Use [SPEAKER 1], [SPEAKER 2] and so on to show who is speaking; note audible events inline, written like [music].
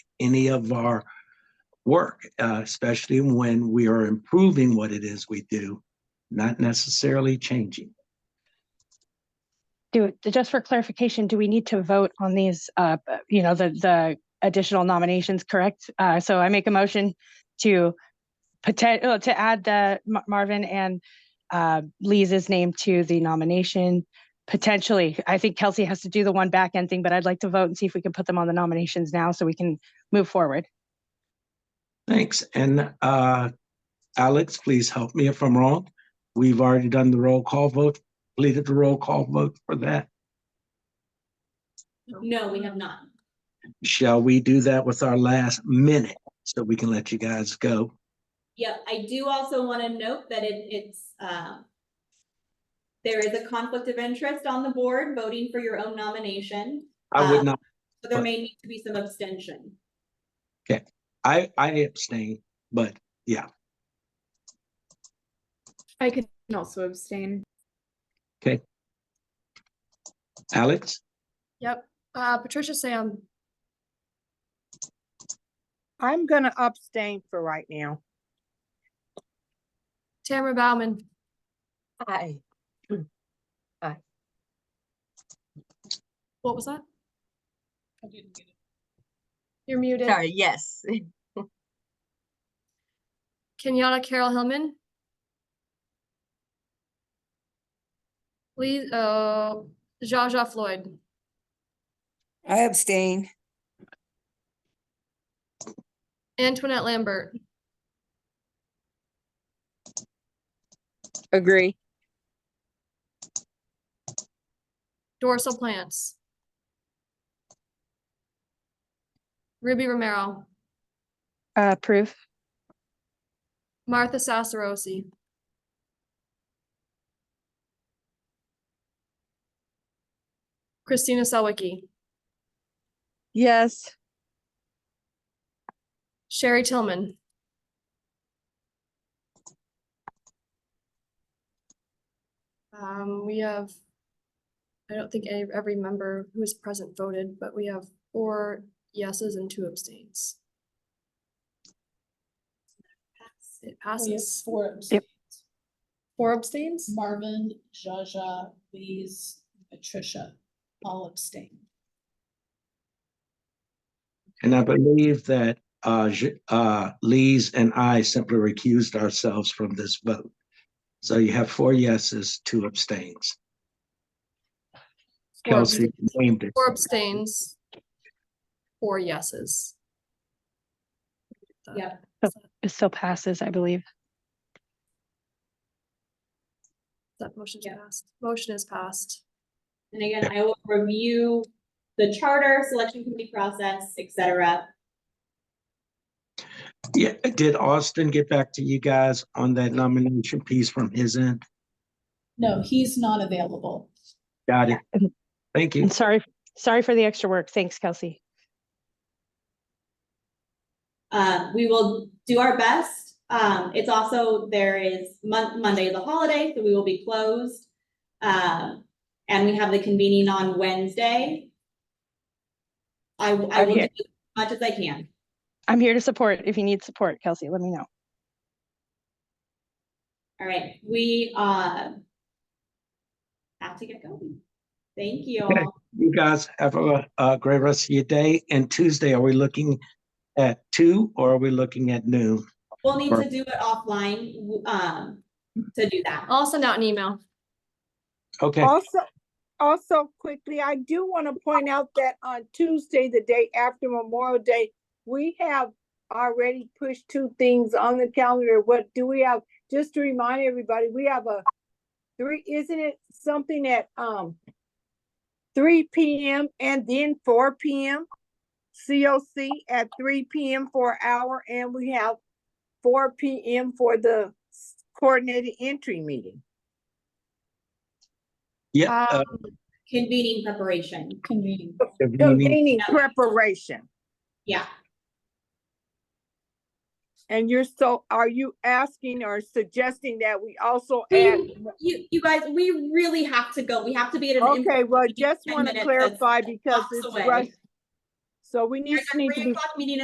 [SPEAKER 1] any of our work, uh, especially when we are improving what it is we do, not necessarily changing.
[SPEAKER 2] Do, just for clarification, do we need to vote on these, uh, you know, the, the additional nominations, correct? Uh, so I make a motion to poten- uh, to add the Ma- Marvin and, uh, Lisa's name to the nomination. Potentially, I think Kelsey has to do the one back end thing, but I'd like to vote and see if we can put them on the nominations now so we can move forward.
[SPEAKER 1] Thanks. And uh, Alex, please help me if I'm wrong. We've already done the roll call vote, completed the roll call vote for that.
[SPEAKER 3] No, we have not.
[SPEAKER 1] Shall we do that with our last minute so we can let you guys go?
[SPEAKER 3] Yep, I do also want to note that it, it's, um, there is a conflict of interest on the board voting for your own nomination,
[SPEAKER 1] I would
[SPEAKER 3] Uh,
[SPEAKER 1] not,
[SPEAKER 3] so there may need to be some abstention.
[SPEAKER 1] I, I abstain, but
[SPEAKER 4] I can also abstain.
[SPEAKER 1] Alex,
[SPEAKER 5] Yep, uh, Patricia Sam,
[SPEAKER 6] I'm gonna abstain for right now.
[SPEAKER 5] Tamara Bauman, [clears throat]
[SPEAKER 6] Aye.
[SPEAKER 5] what was that? You're muted.
[SPEAKER 7] Sorry, yes.
[SPEAKER 5] Kenyatta Carol Hillman. Lee, uh, Jaja Floyd,
[SPEAKER 8] I abstain.
[SPEAKER 5] Antoinette Lambert,
[SPEAKER 8] Agree.
[SPEAKER 5] Dorsal Plants. Ruby Romero,
[SPEAKER 2] Uh, approve?
[SPEAKER 5] Martha Sacerosi. Christina Selwicki,
[SPEAKER 6] Yes,
[SPEAKER 5] Sherry Tillman. Um, we have, I don't think any, every member who is present voted, but we have four yeses and two abstains. It
[SPEAKER 9] Oh,
[SPEAKER 5] passes. Four abstains. Four abstains?
[SPEAKER 9] Marvin, Jaja, Lee's, Patricia, all abstain.
[SPEAKER 1] and I believe that uh, J- uh, Lees and I simply recused ourselves from this vote. So you have four yeses, two abstains.
[SPEAKER 5] Four
[SPEAKER 1] Kelsey
[SPEAKER 5] abstains.
[SPEAKER 1] named it.
[SPEAKER 5] Four abstains. Four yeses.
[SPEAKER 3] Yep.
[SPEAKER 2] It still passes, I believe.
[SPEAKER 5] That motion's
[SPEAKER 3] Yeah.
[SPEAKER 5] passed. Motion is passed.
[SPEAKER 3] And again, I will review the charter, selection committee process, et cetera.
[SPEAKER 1] Yeah, did Austin get back to you guys on that nomination piece from his end?
[SPEAKER 9] No, he's not available.
[SPEAKER 1] Got it. Thank you.
[SPEAKER 2] And sorry, sorry for the extra work. Thanks, Kelsey.
[SPEAKER 3] Uh, we will do our best. Um, it's also, there is Mon- Monday is a holiday, so we will be closed. Um, and we have the convening on Wednesday. I, I
[SPEAKER 2] I'm
[SPEAKER 3] will do
[SPEAKER 2] here.
[SPEAKER 3] as much as I can.
[SPEAKER 2] I'm here to support. If you need support, Kelsey, let me know.
[SPEAKER 3] All right, we, uh, have to get going. Thank you
[SPEAKER 1] Okay.
[SPEAKER 3] all.
[SPEAKER 1] You guys have a, a great rest of your day. And Tuesday, are we looking at two or are we looking at noon?
[SPEAKER 3] We'll need
[SPEAKER 1] Right.
[SPEAKER 3] to do it offline, w- um, to do that.
[SPEAKER 5] I'll send out an email.
[SPEAKER 1] Okay,
[SPEAKER 6] also, also quickly, I do want to point out that on Tuesday, the day after Memorial Day, we have already pushed two things on the calendar. What do we have? Just to remind everybody, we have a three, isn't it something at, um, three PM and then four PM? COC at three PM for an hour and we have four PM for the coordinated entry meeting.
[SPEAKER 1] yeah. uh,
[SPEAKER 5] Um,
[SPEAKER 3] Convening preparation,
[SPEAKER 9] Convening.
[SPEAKER 1] if you need-
[SPEAKER 6] Convening preparation,
[SPEAKER 3] yeah.
[SPEAKER 6] and you're so, are you asking or suggesting that we also add?
[SPEAKER 3] You, you guys, we really have to go. We have to be at an. in-
[SPEAKER 6] Okay, well, just
[SPEAKER 3] Ten
[SPEAKER 6] want to
[SPEAKER 3] minutes, that's
[SPEAKER 6] clarify because
[SPEAKER 3] blocks
[SPEAKER 6] it's
[SPEAKER 3] away.
[SPEAKER 6] rush. So we need,
[SPEAKER 3] There's a
[SPEAKER 6] need to
[SPEAKER 3] three
[SPEAKER 6] be
[SPEAKER 3] o'clock meeting